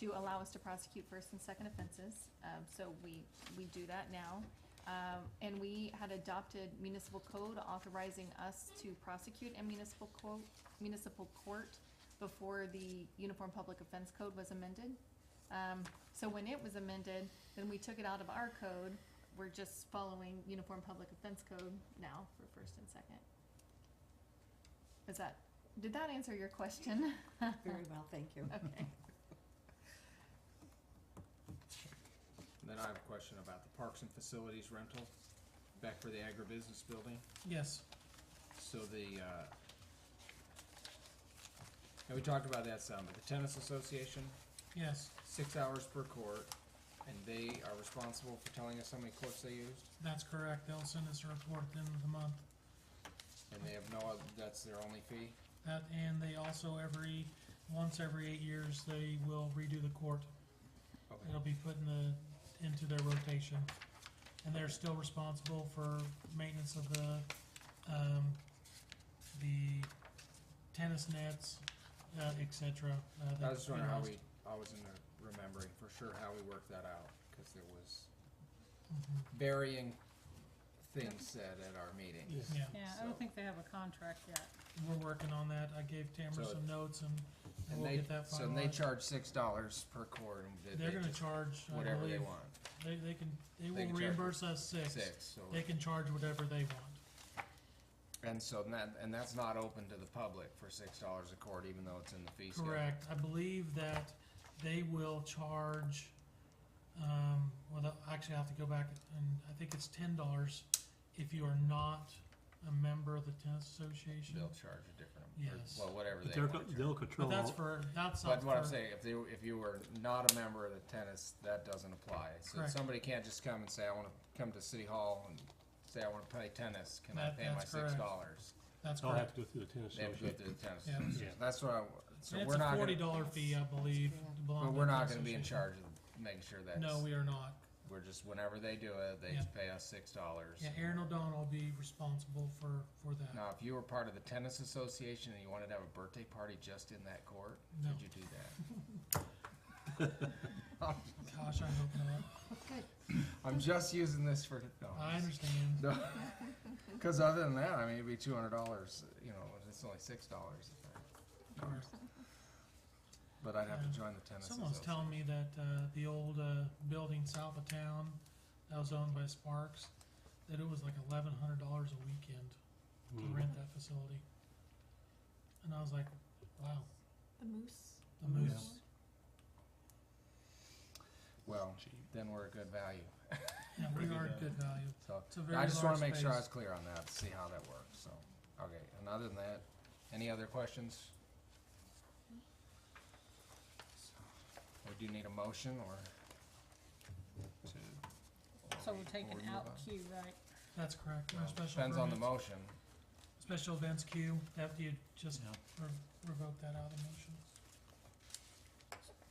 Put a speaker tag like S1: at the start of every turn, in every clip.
S1: to allow us to prosecute first and second offenses. Um, so we, we do that now. Um, and we had adopted municipal code authorizing us to prosecute in municipal co- municipal court before the Uniform Public Offense Code was amended. Um, so when it was amended, then we took it out of our code. We're just following Uniform Public Offense Code now for first and second. Is that, did that answer your question?
S2: Very well, thank you.
S1: Okay.
S3: Then I have a question about the parks and facilities rental, back for the agribusiness building.
S4: Yes,
S3: So the, uh, and we talked about that some, but the tennis association,
S4: yes,
S3: six hours per court, and they are responsible for telling us how many courts they used,
S4: that's correct. They'll send us a report at the end of the month.
S3: and they have no, oth- that's their only fee?
S4: That, and they also every, once every eight years, they will redo the court. It'll
S3: Okay,
S4: be put in the, into their rotation. And they're still responsible for maintenance of the, um, the tennis nets, uh, et cetera. uh,
S3: I
S4: that-
S3: was just wondering how we, I wasn't remembering for sure how we worked that out, cause there was
S4: Mhm.
S3: varying things said at our meeting.
S4: Yeah.
S5: Yeah, I
S3: So-
S5: don't think they have a contract yet.
S4: We're working on that. I gave Tamara
S3: So-
S4: some notes and and
S3: And
S4: we'll
S3: they,
S4: get that
S3: so and they
S4: finalized.
S3: charge six dollars per court, and did
S4: They're
S3: they
S4: gonna
S3: just
S4: charge, I
S3: whatever they
S4: believe,
S3: want,
S4: they, they can, they
S3: They
S4: will
S3: can charge
S4: reimburse us six.
S3: six, so.
S4: They can charge whatever they want.
S3: And so that, and that's not open to the public for six dollars a court, even though it's in the fee schedule.
S4: Correct. I believe that they will charge, um, well, they'll- actually I have to go back and I think it's ten dollars if you are not a member of the tennis association.
S3: They'll charge a different, or,
S4: Yes.
S3: well, whatever
S6: But
S3: they
S6: they're,
S3: want
S6: co-
S3: to charge.
S6: they'll control,
S4: But that's
S6: all-
S4: for, that's not
S3: That's what I'm
S4: for-
S3: saying, if they, if you were not a member of the tennis, that doesn't apply. So
S4: Correct.
S3: somebody can't just come and say, I wanna come to City Hall and say, I wanna play tennis, can I
S4: That-
S3: pay my
S4: that's
S3: six
S4: correct.
S3: dollars?
S4: That's
S6: they'll have
S4: correct.
S6: to go through the tennis
S3: They have to go
S6: association.
S3: through the tennis.
S4: Yeah.
S3: association. That's what I, so
S4: It's
S3: we're
S4: a
S3: not
S4: forty
S3: gonna,
S4: dollar fee, I believe. to belong
S3: but
S4: to
S3: we're
S4: the
S3: not
S4: tennis
S3: gonna be in
S4: association.
S3: charge of making sure that's,
S4: No, we are not.
S3: we're just, whenever they do it, they
S4: Yeah.
S3: just pay us six dollars.
S4: Yeah, Aaron O'Donnell will be responsible for, for that.
S3: Now, if you were part of the tennis association and you wanted to have a birthday party just in that court,
S4: No.
S3: could you do that?
S4: Gosh, I hope not.
S1: Oh,
S3: I'm just using this for. No, I'm
S4: I
S3: just-
S4: understand.
S3: No, because other than that, I mean, it'd be two hundred dollars. You know, it's only six dollars. But I'd have to join the tennis.
S4: Someone's
S3: association.
S4: telling me that, uh, the old, uh, building south of town that was owned by Sparks, that it was like eleven hundred dollars a weekend
S3: Hmm.
S4: to
S6: Mm.
S4: rent that facility. And I was like, wow,
S1: The moose.
S4: the moose,
S3: Well, then we're a good value.
S4: yeah, we
S6: Pretty
S4: are
S6: good
S4: good value.
S3: So
S4: It's a very
S3: I
S4: large
S3: just want to make sure I was
S4: space.
S3: clear on that to see how that works. So, okay. And other than that, any other questions? We do need a motion or to.
S5: So we're
S3: or we- or
S5: taking
S3: we move
S5: out
S3: on?
S5: Q, right?
S4: That's correct. Our
S3: Well,
S4: special
S3: Depends on the
S4: permit-
S3: motion.
S4: Special events queue, that you just
S6: Yeah.
S4: re- revoke that out of the motion.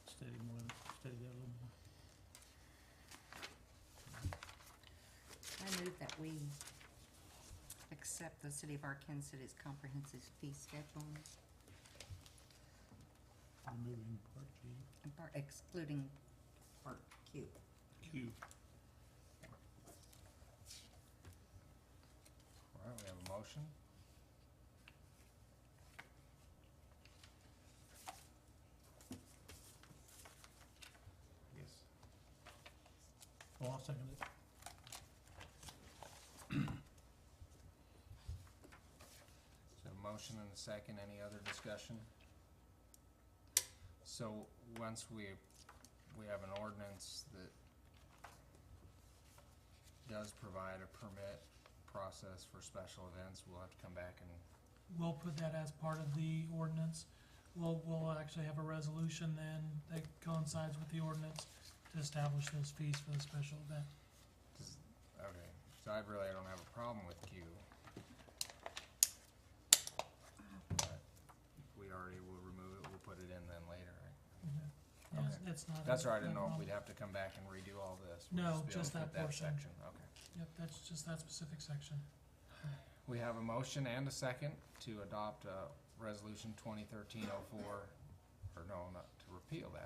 S6: Steady more, steady that a little more.
S2: I move that we accept the City of Arkansas City's comprehensive fee schedule,
S6: Removing part G.
S2: and par- excluding part Q.
S6: Q.
S3: All right, we have a motion. Yes.
S6: Well, I'll second it.
S3: So a motion and a second, any other discussion? So once we, we have an ordinance that does provide a permit process for special events, we'll have to come back and
S4: We'll put that as part of the ordinance. We'll, we'll actually have a resolution then that coincides with the ordinance to establish those fees for the special event.
S3: Does- Okay, so I really don't have a problem with Q. But We already will remove it, we'll put it in then later, right?
S4: Yeah, it's-
S3: Okay.
S4: it's not.
S3: That's right, I didn't know
S4: not
S3: if
S4: wrong.
S3: we'd have to come back and redo all this.
S4: No,
S3: We'll be able
S4: just
S3: to put
S4: that portion.
S3: section, Okay.
S4: Yep, that's just that specific section.
S3: We have a motion and a second to adopt, uh, resolution twenty thirteen oh four, or no, not, to repeal that,